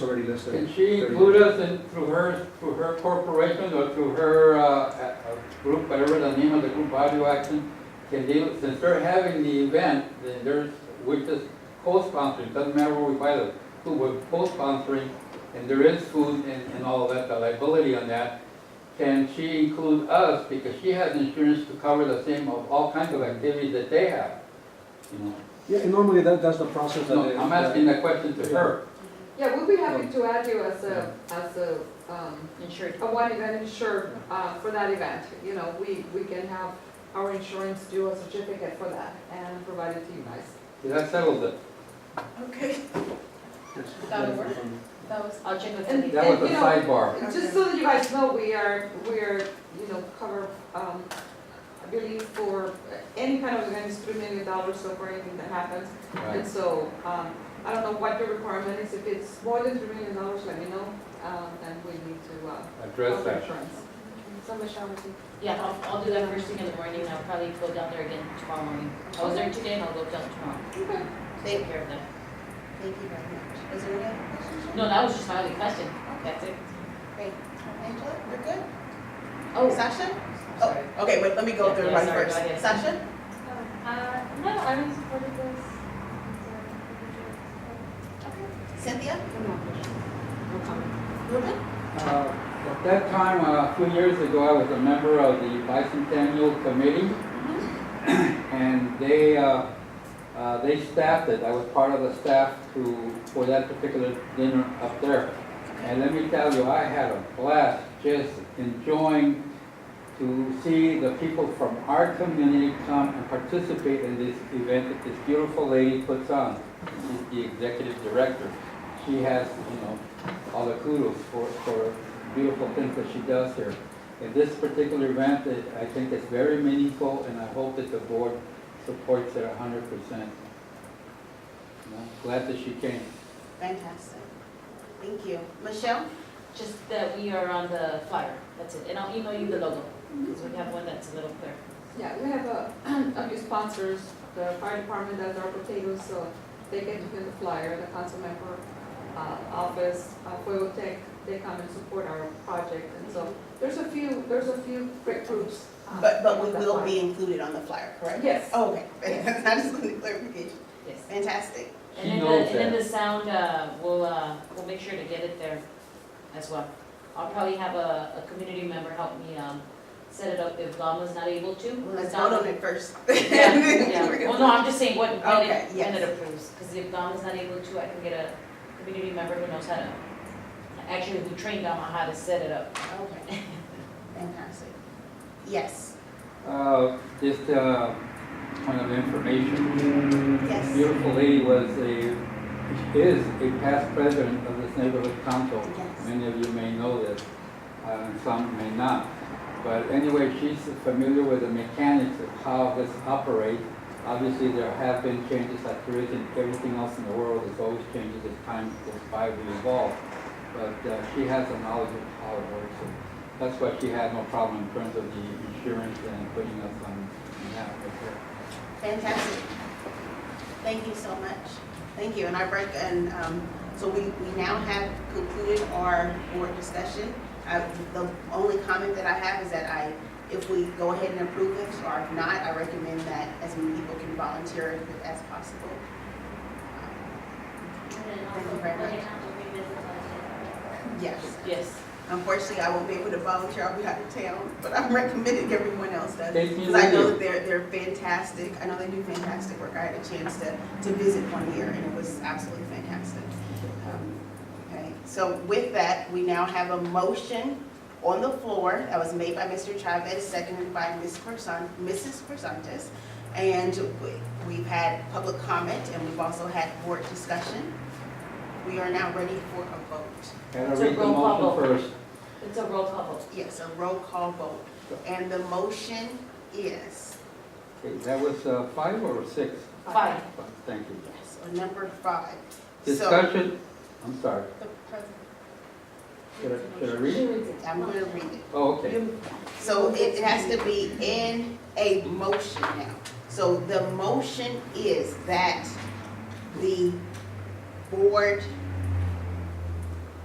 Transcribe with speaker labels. Speaker 1: already listed.
Speaker 2: Can she
Speaker 1: 30.
Speaker 2: include us in, through her, through her corporation or through her, uh, uh, group, whatever the name of the group, Audio Action? Can they, since they're having the event, then there's, which is co-sponsoring, doesn't matter where we buy the food, we're co-sponsoring, and there is food and, and all of that, the liability on that. Can she include us, because she has insurance to cover the same of all kinds of activities that they have, you know?
Speaker 1: Yeah, and normally that, that's the process that. they-
Speaker 2: No, I'm asking that question to her.
Speaker 3: Yeah, we'll be happy to add you as a, as a, um, Insured. A one event insured, uh, for that event, you know, we, we can have our insurance do a certificate for that and provide it to you guys.
Speaker 2: That settles it.
Speaker 4: Okay.
Speaker 1: Yes.
Speaker 4: That'll work. That was,
Speaker 5: I'll check with
Speaker 3: And-
Speaker 5: Cindy.
Speaker 2: That was a
Speaker 3: you know,
Speaker 2: sidebar.
Speaker 3: Just so that you guys know, we are, we are, you know, cover, um, I believe for any kind of event is three million dollars so for anything that happens. And
Speaker 2: Right.
Speaker 3: so, um, I don't know what the requirement is, if it's more than three million dollars, let me know, um, then we need to, uh,
Speaker 2: Address
Speaker 3: cover
Speaker 2: that.
Speaker 3: insurance. So Michelle, would you-
Speaker 5: Yeah, I'll, I'll do that first thing in the morning, I'll probably go down there again tomorrow morning. I was there today and I'll go down tomorrow,
Speaker 3: Okay.
Speaker 5: take
Speaker 4: thank,
Speaker 5: care of that.
Speaker 4: thank you very much. Is there any other questions?
Speaker 5: No, that was just my only question, that's it.
Speaker 4: Great. Angela, we're good?
Speaker 5: Oh,
Speaker 4: Session?
Speaker 5: sorry.
Speaker 4: Oh, okay, wait, let me go
Speaker 5: Yeah,
Speaker 4: through
Speaker 5: yeah,
Speaker 4: everybody
Speaker 5: sorry,
Speaker 4: first.
Speaker 5: go ahead.
Speaker 4: Session?
Speaker 6: Uh, no, I was supported this. uh,
Speaker 4: Cynthia? Ruben?
Speaker 2: Uh, At that time, uh, a few years ago, I was a member of the bicentennial committee. And they, uh, uh, they staffed it. I was part of the staff to, for that particular dinner up there. And let me tell you, I had a blast just enjoying to see the people from our community come and participate in this event that this beautiful lady puts on. She's the executive director. She has, you know, all the kudos for, for beautiful things that she does here. In this particular event, it- I think it's very meaningful, and I hope that the board supports it hundred percent. Glad that she came.
Speaker 4: Fantastic. Thank you. Michelle?
Speaker 5: just that we are on the flyer, that's it, and I'll email you the logo, because we have one that's a little clear.
Speaker 3: Yeah, we have a, a few sponsors, the fire department does our potatoes, so they get to do the flyer, the council member, uh, office, uh, Fuego Tech, they come and support our project, and so there's a few, there's a few great groups. uh,
Speaker 4: But, but we
Speaker 3: on the
Speaker 4: will
Speaker 3: flyer.
Speaker 4: be included on the flyer, correct?
Speaker 3: Yes.
Speaker 4: Oh, okay. I just wanted clarification.
Speaker 5: Yes.
Speaker 4: Fantastic.
Speaker 5: And
Speaker 2: She
Speaker 5: then, the-
Speaker 2: knows
Speaker 5: and then
Speaker 2: that.
Speaker 5: the sound, uh, we'll, uh, we'll make sure to get it there as well. I'll probably have a, a community member help me, um, set it up if Lama's not able to.
Speaker 4: Let's
Speaker 5: Not-
Speaker 4: vote on it first.
Speaker 5: Mm-hmm. Yeah, yeah. Well, no, I'm just saying what, when
Speaker 4: Okay,
Speaker 5: it, when
Speaker 4: yes.
Speaker 5: it approves, because if Dom is not able to, I can get a community member who knows how to, actually who trained Dom on how to set it up.
Speaker 4: Okay. Fantastic. Yes,
Speaker 2: Uh, Just uh, point of information,
Speaker 4: yes,
Speaker 2: beautiful lady was a, is a past president of this neighborhood council.
Speaker 4: yes.
Speaker 2: Many of you may know this, uh, some may not. But anyway, she's familiar with the mechanics of how this operates. Obviously, there have been changes like there is in everything else in the world. There's always changes as time goes by, we evolve. But uh, she has a knowledge of how it works. and That's why she had no problem in terms of the insurance and putting us on on that right there.
Speaker 4: Fantastic. Thank you so much. Thank you. And I break, and, um, so we, we now have concluded our board discussion. I, the only comment that I have is that I, if we go ahead and approve this, or if not, I recommend that as many people can volunteer as possible. also, we're gonna Yes.
Speaker 5: Yes.
Speaker 4: Unfortunately, I won't be able to volunteer, I'll be out of town, but I'm recommending everyone else does.
Speaker 2: Thank you,
Speaker 4: Because I know
Speaker 2: Lulu.
Speaker 4: that they're, they're fantastic, I know they do fantastic work. I had a chance to, to visit one year and it was absolutely fantastic. Um, Okay, so with that, we now have a motion on the floor that was made by Mr. Chavez, seconded by Ms. Corson, Mrs. Corsantes. And we- we've had public comment and we've also had board discussion. We are now ready for a vote.
Speaker 2: Gotta
Speaker 5: It's a
Speaker 2: read the
Speaker 5: roll call
Speaker 2: motion
Speaker 5: vote.
Speaker 2: first.
Speaker 5: It's a roll call vote.
Speaker 4: Yes, a roll call vote. And the motion is,
Speaker 2: Okay, That was uh, five or six?
Speaker 5: Five.
Speaker 2: Thank you.
Speaker 4: yes, on number five. So
Speaker 2: Discussion, I'm sorry,
Speaker 4: the president-
Speaker 2: should I, should I read it?
Speaker 4: I'm going to read it.
Speaker 2: Oh, okay.
Speaker 4: So it has to be in a motion now. So the motion is that the board